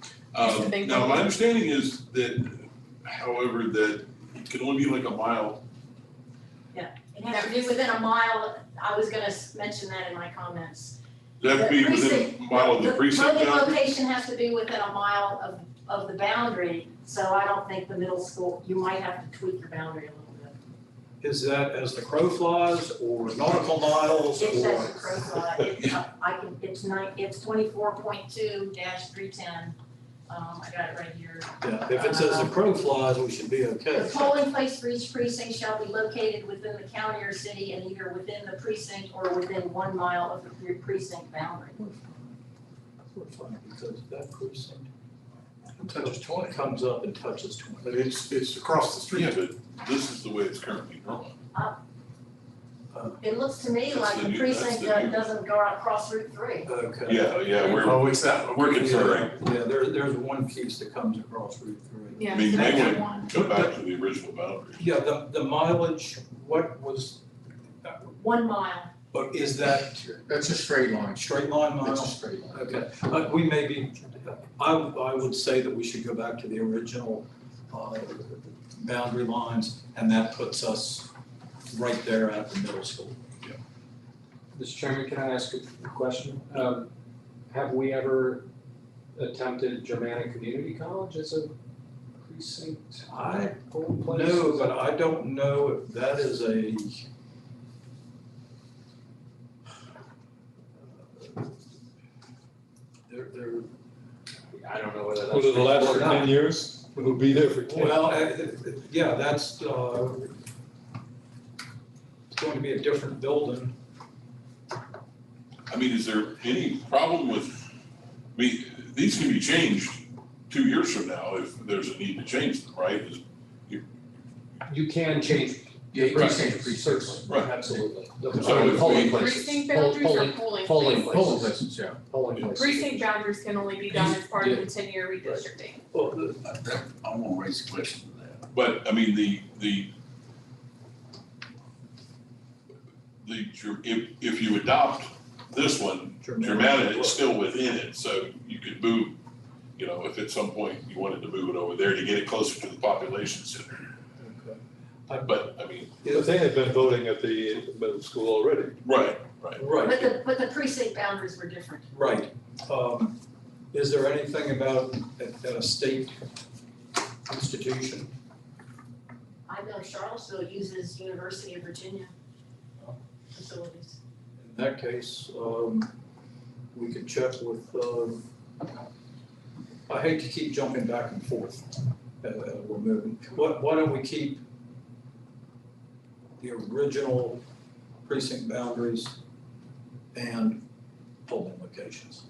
Just a Um, big Now, one. my understanding is that, however, that it can only be like a mile. It has to be within a mile, I was gonna s- mention that in my comments. Does that The be within precinct- a mile of the precinct voting boundary? location has to be within a mile of, of the boundary, so I don't think the middle school, you might have to tweak your boundary a little bit. Is that as the crow flies or nautical miles It says the or? crow fly, it's, uh, I can, it's nine, it's twenty-four point two dash three ten, um, I got it right here. Yeah, if it says the crow flies, we should be okay. The polling place for each precinct shall be located within the county or city and either within the precinct or within one mile of the pre- precinct boundary. We're fine, because that precinct Touches twenty. comes up and touches twenty. But it's, it's across the street. Yeah, but this is the way it's currently drawn. It looks to me That's like the the new- that's precinct the that new- doesn't go across Route three. Okay. Yeah, yeah, we're, Oh, it's that. we're considering, Yeah, there, there's one piece that comes across Route three. I mean, that's they the would one. go back to the original boundary. Yeah, the, the mileage, what was, that? One mile, but is that That's a straight line. straight line That's a miles? straight line. Okay, uh, we may be, I, I would say that we should go back to the original, uh, boundary lines, and that puts us right there at the middle school. Mr. Chairman, can I ask a question? Um, have we ever attempted Germanic Community College as a precinct I polling place? No, but I don't know if that is a. There, there, I don't know whether that's. Over the last or not. ten years, it'll be there for ten. well, eh, eh, yeah, that's, uh, it's going to be a different building. I mean, is there any problem with, I mean, these can be changed two years from now if there's a need to change them, right? Is- You can change. Yeah, you can change precincts. Certainly, Right. absolutely. The- So if we- Polling Precinct places, Poll- boundaries or polling, polling polling places? Polling places, yeah. polling places. Precinct boundaries can only be done as part of the ten-year redistricting. Well, the- I want to raise a question to that. But, I mean, the, the, the, Ger- if, if you adopt this one, Germana is still within it, so you could move, you know, if at some point you wanted to move it over there to get it closer to the population center. Okay. But, I mean, Yeah, But they had been voting at the middle school already. right, but Right, the, but the precinct boundaries were different. right. Um, is there anything about a, a state institution? I know Charlottesville uses University of Virginia facilities. In that case, um, we could check with, um, I hate to keep jumping back and forth, uh, uh, we're moving. Why, why don't we keep the original precinct boundaries and polling locations?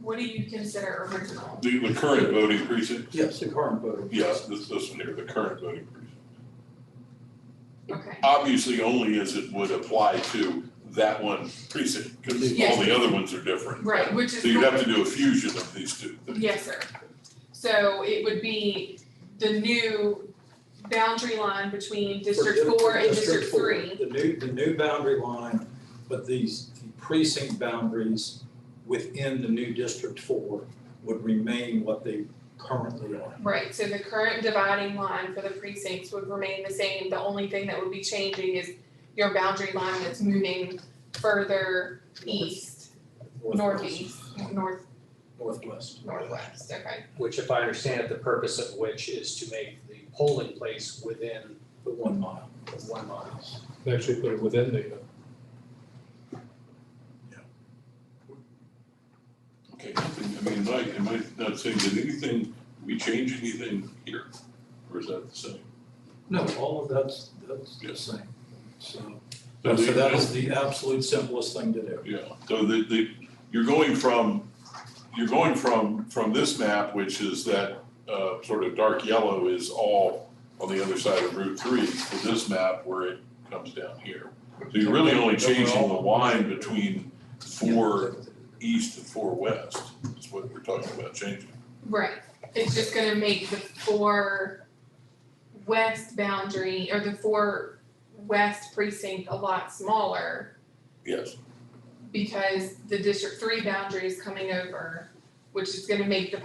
What do you consider original? the, the current voting precinct, Yes, the current voter. yes, this, this one here, the current voting precinct. Okay, Obviously, only as it would apply to that one precinct, because Yes. all the other ones are different. right, which is. So you'd have to do a fusion of these two things. Yes, sir. So it would be the new boundary line between District Four and District four, Three. The new, the new boundary line, but these the precinct boundaries within the new District Four would remain what they currently are. Right, so the current dividing line for the precincts would remain the same. The only thing that would be changing is your boundary line that's moving further east, northeast, north, Northwest. northwest, okay? Which if I understand it, the purpose of which is to make the polling place within The one mile. the one mile. They actually put it within the, uh, Okay, nothing- I mean, Mike, am I not saying, did anything, we change anything here? Or is that the same? No, all of that's, that's the Yes. same. So, So so the- that is the absolute simplest thing to do. Yeah, so the, the, you're going from, you're going from, from this map, which is that, uh, sort of dark yellow is all on the other side of Route three, to this map where it comes down here. So you're really only changing the line between four east and four west, is what we're talking about changing. Right, it's just gonna make the four west boundary, or the four west precinct a lot smaller. Yes, because the District Three boundary is coming over, which is gonna make the